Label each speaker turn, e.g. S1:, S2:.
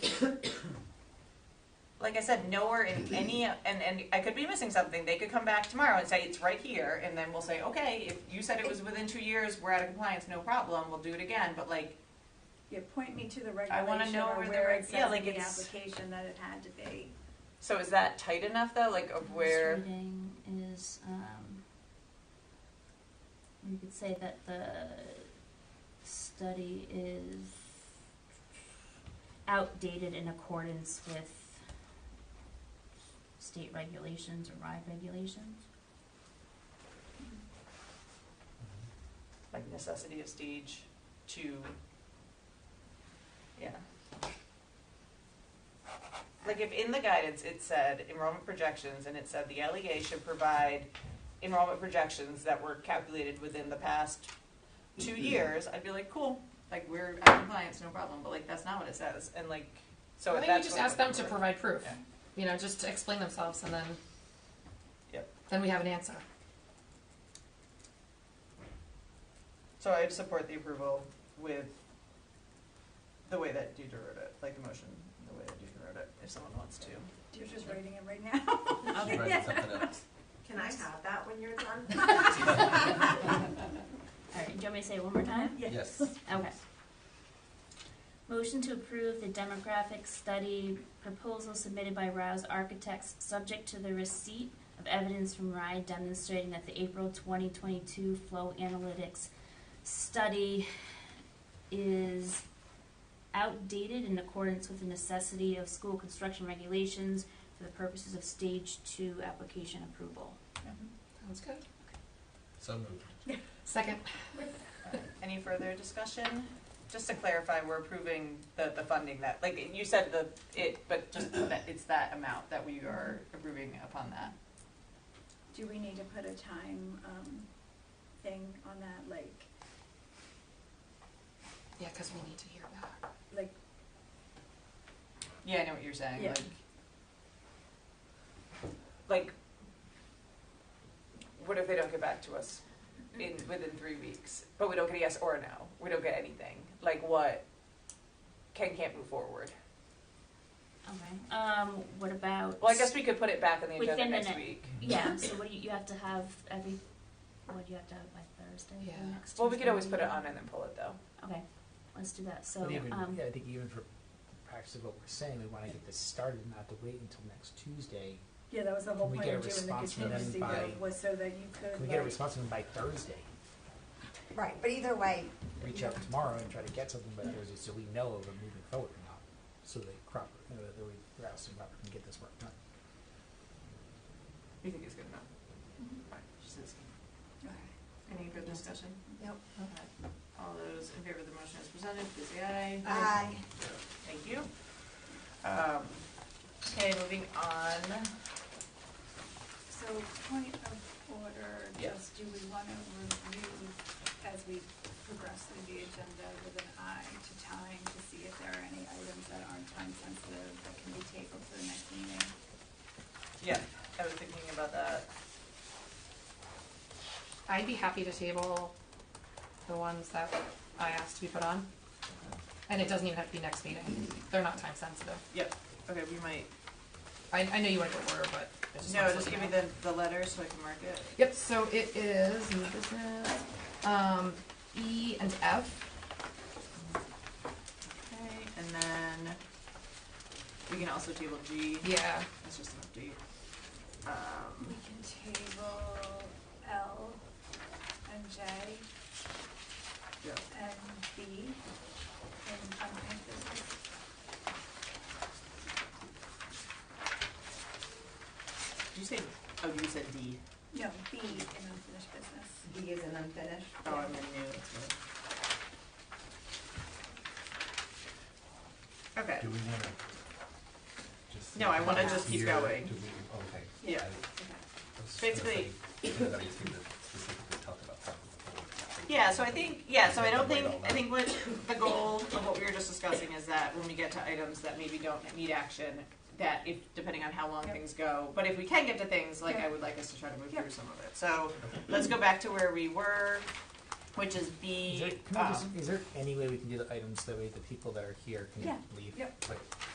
S1: like I said, nowhere in any, and, and I could be missing something, they could come back tomorrow and say, it's right here, and then we'll say, okay, if you said it was within two years, we're out of compliance, no problem, we'll do it again, but like,
S2: Yeah, point me to the
S1: I wanna
S2: regulation
S1: know
S2: or
S1: where the
S2: where
S1: reg-
S2: it
S1: yeah,
S2: says
S1: like
S2: in the
S1: it's-
S2: application that it had to be.
S1: so is that tight enough though, like of where,
S3: First reading is, um, we could say that the study is outdated in accordance with state regulations or ride regulations.
S1: like necessity of stage two? Yeah. Like if in the guidance, it said enrollment projections, and it said the LEA should provide enrollment projections that were calculated within the past two years, I'd be like, cool, like we're out of compliance, no problem, but like that's not what it says, and like, so
S4: I
S1: if
S4: think we
S1: that's.
S4: just
S1: what-
S4: ask them to provide proof,
S1: Yeah.
S4: you know, just to explain themselves and then.
S1: Yep.
S4: Then we have an answer.
S1: So I'd support the approval with the way that Deidre wrote it, like the motion, the way that Deidre wrote it, if someone wants to.
S2: You're just writing it right now.
S5: She's writing something up.
S6: Can I have that when you're done?
S3: Alright, do you want me to say it one more time?
S5: Yes.
S3: Okay. Motion to approve the demographic study proposal submitted by Rouse Architects, subject to the receipt of evidence from RIDE demonstrating that the April twenty twenty-two flow analytics study is outdated in accordance with the necessity of school construction regulations for the purposes of stage two application approval.
S4: Sounds good.
S5: So moved.
S4: Second.
S1: Any further discussion? Just to clarify, we're approving the, the funding that, like, you said the, it, but just that, it's that amount that we are approving upon that.
S2: Do we need to put a time, um, thing on that, like,
S4: Yeah, because we need to hear that.
S2: like,
S1: Yeah, I know what you're saying,
S2: Yeah.
S1: like. Like, what if they don't get back to us in, within three weeks, but we don't get a yes or a no, we don't get anything, like what? Ken can't move forward,
S3: Okay, um, what about?
S1: well, I guess we could put it back on the agenda
S3: Within the
S1: next
S3: ne-
S1: week.
S3: Yeah, so what do you, you have to have every, what do you have to have by Thursday for
S4: Yeah.
S3: next
S1: Well, we
S3: Tuesday
S1: could always put it
S3: meeting?
S1: on and then pull it though.
S3: Okay, let's do that, so,
S7: But even,
S3: um,
S7: yeah, I think even for practice of what we're saying, we wanna get this started, not to wait until next Tuesday.
S2: yeah, that was the whole
S7: Can we
S2: point
S7: get a
S2: of doing the
S7: response from them
S2: contingency
S7: by-
S2: vote, was so that you could,
S7: Can we get a
S2: like-
S7: response from them by Thursday?
S6: Right, but either way,
S7: Reach out tomorrow and try to get something by Thursday, so we know if we're moving forward or not, so that Cropper, uh, that we, Rouse and Cropper can get this work done.
S1: You think it's good enough? Alright, she's asking. Any further discussion?
S6: Nope.
S1: Okay. All those in favor of the motion as presented, please say aye.
S6: I,
S1: Thank you. Um, Okay, moving on.
S2: So point of order,
S1: Yeah.
S2: just do we want to review as we progress through the agenda with an eye to time to see if there are any items that aren't time sensitive that can be tabled for the next meeting?
S1: Yeah, I was thinking about that.
S4: I'd be happy to table the ones that I asked to be put on. And it doesn't even have to be next meeting. They're not time sensitive.
S1: Yep, okay, we might,
S4: I, I know you want to go order, but. I
S1: no,
S4: wanted to
S1: just
S4: let
S1: give
S4: you
S1: me
S4: know.
S1: the, the letter so I can mark it.
S4: Yep, so it is, new business, um, E and F.
S1: Okay, and then we can also table G,
S4: Yeah,
S1: that's just an update. Um,
S2: We can table L and J
S1: yeah,
S2: and B in unfinished business.
S1: did you say, oh, you said D.
S2: No, B in unfinished business.
S6: B is an unfinished.
S1: Oh, I'm in new, that's right. Okay,
S8: Do we wanna just?
S1: No, I wanna just keep
S8: Here,
S1: going.
S8: Do we, okay.
S1: yeah,
S8: I was just gonna
S1: Basically-
S8: say, Anybody who's gonna specifically talk about something. before we-
S1: yeah, so I think, yeah, so I don't think,
S8: Wait on
S1: I
S8: that.
S1: think what, the goal of what we were just discussing is that when we get to items that maybe don't need action, that if, depending on how long
S2: Yep.
S1: things go, but if we can get to things, like, I would like us to try to move through some of it, so, let's go back to where we were, which is
S7: Is
S1: B,
S7: there, can we just,
S1: um,
S7: is there any way we can do the items that way the people that are here can
S2: Yeah,
S7: leave?
S2: yep.
S7: Like,